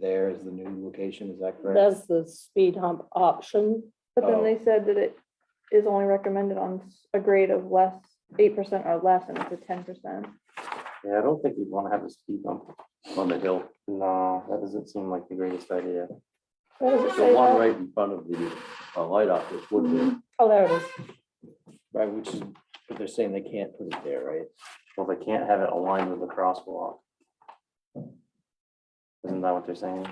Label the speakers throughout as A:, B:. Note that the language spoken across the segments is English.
A: there is the new location, is that correct?
B: That's the speed hump option.
C: But
A: Oh.
C: then they said that it is only recommended on s- a grade of less, eight percent or less, and it's a ten percent.
D: Yeah, I don't think you'd wanna have a speed bump.
E: on the hill.
D: No, that doesn't seem like the greatest idea.
B: Where does it say
E: The one
B: that?
E: right in front of the uh, light office would be.
B: Oh, there it is.
A: Right, which is, but they're saying they can't put it there, right?
D: Well, they can't have it aligned with the crosswalk. Isn't that what they're saying?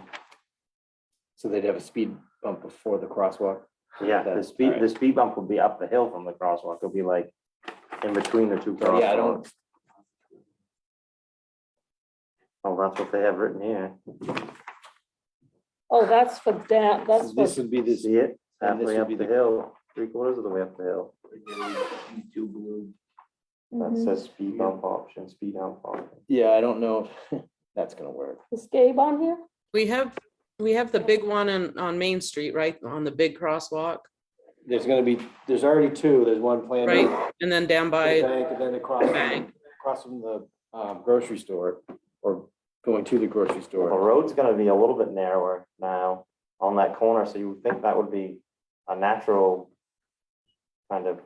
A: So they'd have a speed bump before the crosswalk.
D: Yeah,
A: Okay,
D: the speed, the
A: alright.
D: speed bump would be up the hill from the crosswalk. It'll be like in between the two
A: Yeah, I don't,
D: crosswalks. Oh, that's what they have written here.
B: Oh, that's for down, that's
A: this
B: for,
A: would be this,
D: See it?
A: and this
D: Halfway
A: would
D: up
A: be
D: the
A: the-
D: hill, three quarters of the way up the hill.
E: Two blue.
D: That
B: Mm-hmm.
C: Mhm.
D: says speed bump option, speed bump option.
A: yeah, I don't know if that's gonna work.
B: is Gabe on here?
F: We have, we have the big one on, on Main Street, right? On the big crosswalk,
A: There's gonna be, there's already two, there's one planned.
F: Right.
A: for
F: and then down
A: the
F: by,
A: Bank, and then across,
F: the bank.
A: across from the um, grocery store, or going to the grocery
D: The
F: Mm-hmm.
A: store.
D: road's gonna be a little bit narrower now on that corner, so you would think that would be a natural kind of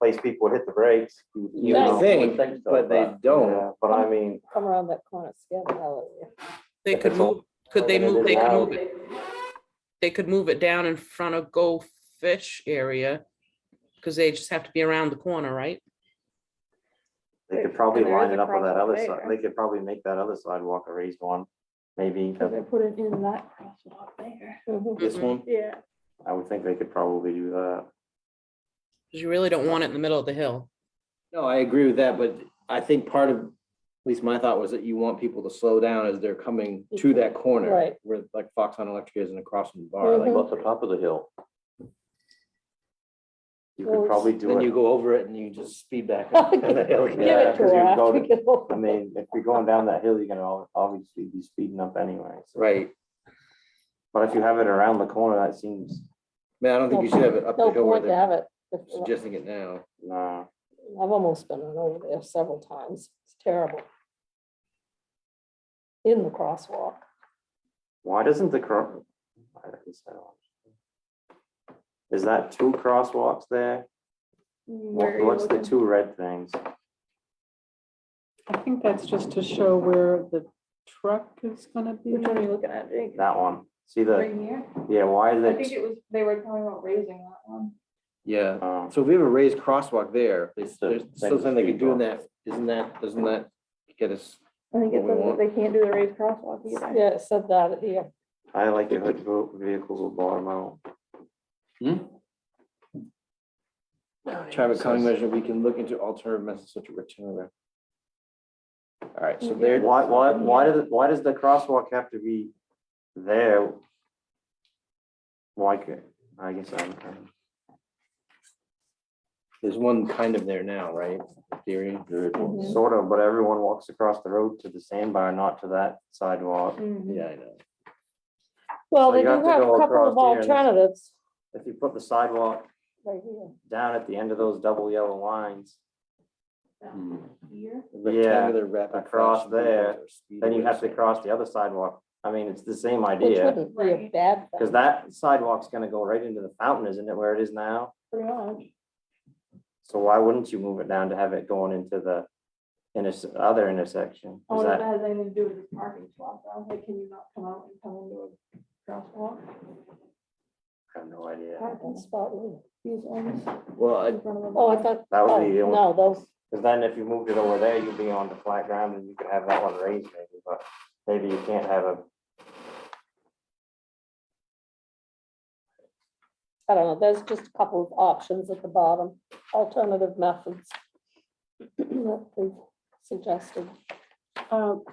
D: place people would hit the brakes. you would-
A: You
B: would
D: know,
A: think,
D: would so,
A: but they don't.
D: yeah, But I mean,
B: Come around that corner, it's scary, hallelujah.
F: they could move, could they move, they could move it. They could move it down in front of Go Fish area, because they just have to be around the corner, right?
D: they could probably
C: And there is
D: line it
C: a
D: up with that
C: crosswalk
D: other
C: there.
D: side, they could probably make that other sidewalk a raised one. Maybe,
C: Cause they put it in that crosswalk there.
B: Mhm.
A: This one,
C: Yeah.
D: I would think they could probably do that.
F: Because you really don't want it in the middle of the hill.
A: no, I agree with that, but I think part of, at least my thought was that you want people to slow down as they're coming to that corner.
B: Right.
A: Where like Fox on Electric is and across from the bar, like,
B: Mhm.
E: About the top of the hill.
D: You
B: Well,
D: could
B: it's-
D: probably do
A: then you
D: it.
A: go over it and you just speed back. up to the hill
B: Give
A: again.
D: Yeah,
B: it to
D: 'cause
B: her
D: you go
B: after
D: to-
B: we get over.
D: I mean, if you're going down that hill, you're gonna al- obviously be speeding up anyway. so-
A: Right,
D: But if you have it around the corner, that seems,
A: man, I don't think you should have it up the
B: No
A: hill where
B: point to
A: they're
B: have it. if-
A: suggesting it now.
D: nah.
B: I've almost been run over there several times. It's terrible. In the crosswalk.
D: Why doesn't the cro? I don't know. Is that two crosswalks there?
C: Where are
D: What-
C: you
D: What's the
C: looking?
D: two red things?
G: I think that's just to show where the truck is gonna be.
C: Which one are you looking at, Jake?
D: That one. See the,
C: here?
D: yeah, why is
C: I think
D: it?
C: it was, they were talking about raising that one.
A: Yeah,
D: um,
A: so if we have a raised crosswalk there, they-
E: It's the
A: there's
E: same
A: still something they could
E: speed
A: do in
E: bump.
A: that, isn't that, doesn't that get us?
C: I think
A: What
C: it
A: we
C: says that
A: want.
C: they can't do the raised crosswalk either.
B: Yeah, it said that here.
D: I like your hood vo- vehicles will bottom out.
A: Traffic calming measure, we can look into alternative methods such as return. All right,
B: Mm-hmm.
A: so there,
D: Why, why, why does, it- why does the crosswalk have to be there? Why could, I guess I'm,
A: there's one kind of there now, right? Theory.
E: There is one.
C: Mhm.
D: sort of, but everyone walks across the road to the sandbar, not to that sidewalk.
G: Mm-hmm.
C: Mhm.
A: Yeah, I know.
B: Well,
D: So
B: they
D: you
B: do
D: have
B: have
D: to go
B: a couple
D: across
B: of
D: here and-
B: alternatives
D: If you put the sidewalk
B: right here.
D: down at the end of those double yellow lines,
A: Rectangular rapid
D: across
A: flashing beacons
D: there,
A: or speed
D: then you have to
A: awareness.
D: cross the other sidewalk. I mean, it's the same
B: Which
D: idea,
B: wouldn't be a bad
D: because
B: thing.
D: that sidewalk's gonna go right into the fountain, isn't it, where it is now?
C: Pretty much.
D: So why wouldn't you move it down to have it going into the interse- other intersection?
C: I
D: Is
C: wonder if that
D: that,
C: Oh, has anything to do with this parking spot, though, like, can you not come out and come into a crosswalk?
D: I have no idea.
B: Parking spot, wouldn't it?
C: These ones
A: Well, I-
C: in front of them.
B: Oh, I thought,
D: That
B: oh,
D: would be the only-
B: no, those,
D: Because then if you moved it over there, you'd be on the flat ground and you could have that one raised maybe, but maybe you can't have a,
B: I don't know, there's just a couple of options at the bottom, alternative methods that they suggested.
G: Um,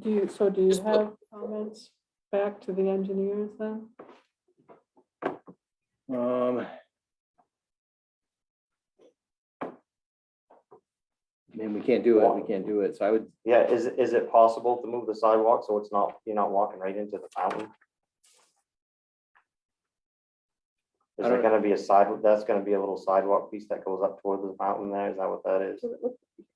G: Do you, so do you
F: Just put-
G: have comments back to the engineers then?
A: Um. I mean, we can't do it, we can't do it, so I would,
D: yeah, is, it- is it possible to move the sidewalk so it's not, you're not walking right into the fountain? Is
A: I
D: there
A: don't-
D: gonna be a side, that's gonna be a little sidewalk piece that goes up toward the fountain there, is that what that is?
C: So it looks-